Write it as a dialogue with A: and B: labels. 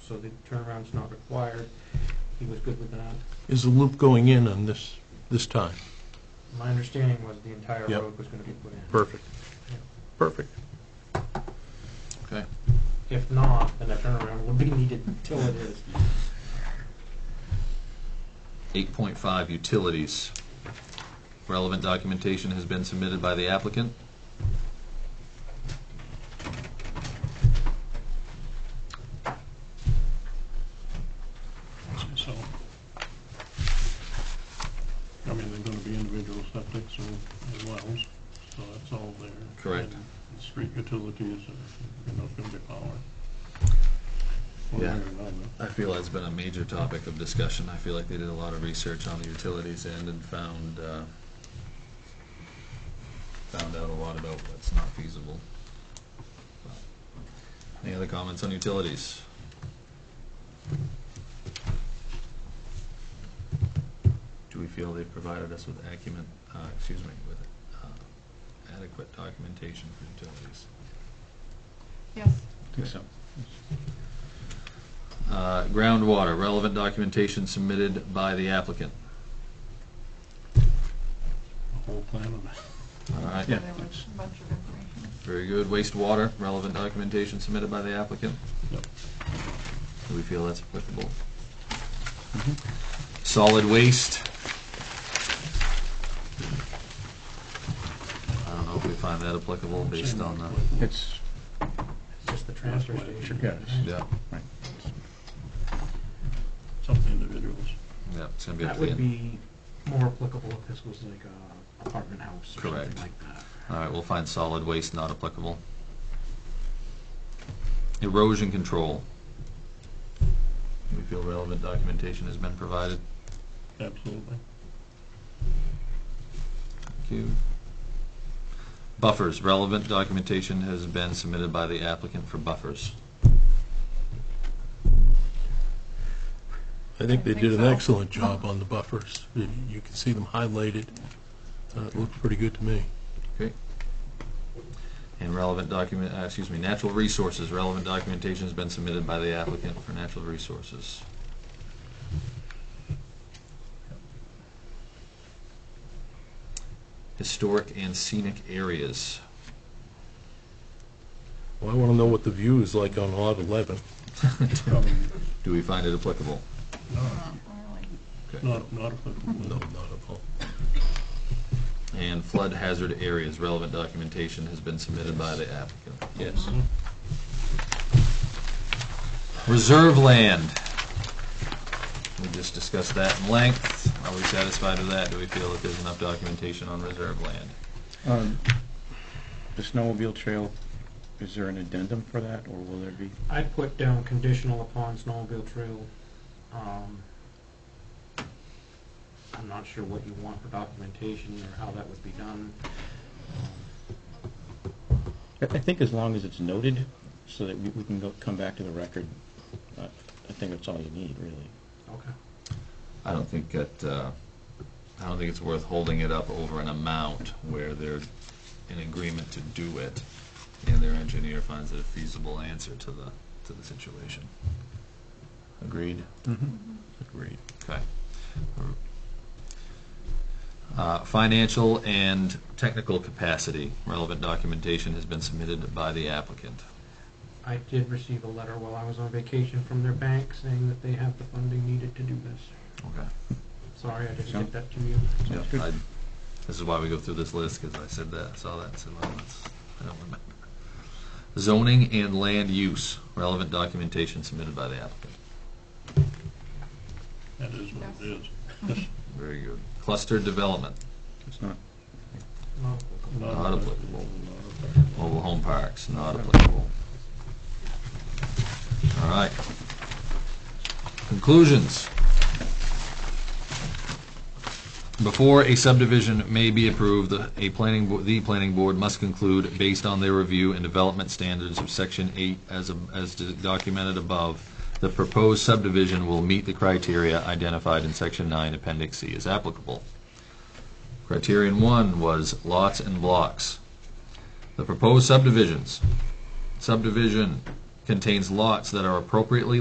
A: so the turnaround's not required. He was good with that.
B: Is the loop going in on this, this time?
A: My understanding was the entire
B: Yep.
A: road was gonna be put in.
B: Perfect. Perfect.
C: Okay.
A: If not, then a turnaround would be needed until it is.
C: Eight point five, utilities. Relevant documentation has been submitted by the applicant.
D: So, I mean, they're gonna be individual septics and and wells, so that's all there.
C: Correct.
D: And the Street utilities, are you know, it's gonna be power. One way
C: Yeah.
D: or another.
C: I feel that's been a major topic of discussion. I feel like they did a lot of research on the utilities end and found, uh, found out a lot about what's not feasible. Any other comments on utilities? Do we feel they've provided us with acumen, uh, excuse me, with, uh, adequate documentation for utilities?
E: Yes.
C: Uh, Groundwater, relevant documentation submitted by the applicant.
D: The whole plan of it.
C: All right,
E: There was a bunch of information.
C: very good. Wastewater, relevant documentation submitted by the applicant.
D: Yep.
C: Do we feel that's applicable? Solid waste. I don't know if we find that applicable based on the,
F: It's,
A: It's just the transfer station.
F: yeah, it's-
C: yeah,
D: It's up to individuals.
C: yeah, it's gonna be up
A: That
C: to
A: would
C: the.
A: be more applicable if this was like a apartment house or something
C: Correct.
A: like that.
C: All right, we'll find solid waste not applicable. Erosion control. Do we feel relevant documentation has been provided?
D: Absolutely.
C: Thank you. Buffers, relevant documentation has been submitted by the applicant for buffers.
B: I think they
E: I think
B: did an
E: so.
B: excellent job on the buffers. You you can see them highlighted. Uh, It looked pretty good to me.
C: And relevant document, uh, excuse me, natural resources, relevant documentation has been submitted by the applicant for natural resources. Historic and scenic areas.
B: Well, I want to know what the view is like on lot 11.
D: Probably
C: Do we find it applicable?
E: Not really.
C: Okay.
D: Not, not applicable.
B: No, not at all.
C: And flood hazard areas, relevant documentation has been submitted by the applicant.
B: Yes.
C: Reserve land. We just discussed that in length. Are we satisfied with that? Do we feel that there's enough documentation on reserve land?
F: um, the snowmobile trail, is there an addendum for that, or will there be?
A: I put down conditional upon snowmobile trail. um, I'm not sure what you want for documentation or how that would be done.
F: I, I think as long as it's noted, so that we, we can go, come back to the record, I, I think that's all you need, really.
A: Okay.
C: I don't think that, uh, I don't think it's worth holding it up over an amount where they're in agreement to do it, and their engineer finds it a feasible answer to the, to the situation. Agreed? Agreed. Okay. Uh, Financial and technical capacity, relevant documentation has been submitted by the applicant.
A: I did receive a letter while I was on vacation from their bank saying that they have the funding needed to do this.
C: Okay.
A: Sorry, I just
F: Yeah.
A: did that to you.
C: Yeah, I, this is why we go through this list, because I said that, saw that, said, well, that's, I don't remember. Zoning and land use, relevant documentation submitted by the applicant.
D: That is what it is.
C: Very good. Cluster development,
F: It's not,
A: Well,
C: Not applicable.
D: Not applicable.
C: mobile home parks, not applicable. All right. Conclusions. Before a subdivision may be approved, the- a planning, bo- the planning board must conclude, based on their review and development standards of section eight as, ab- as documented above, the proposed subdivision will meet the criteria identified in section nine, appendix C as applicable. Criterion one was lots and blocks. The proposed subdivisions, subdivision contains lots that are appropriately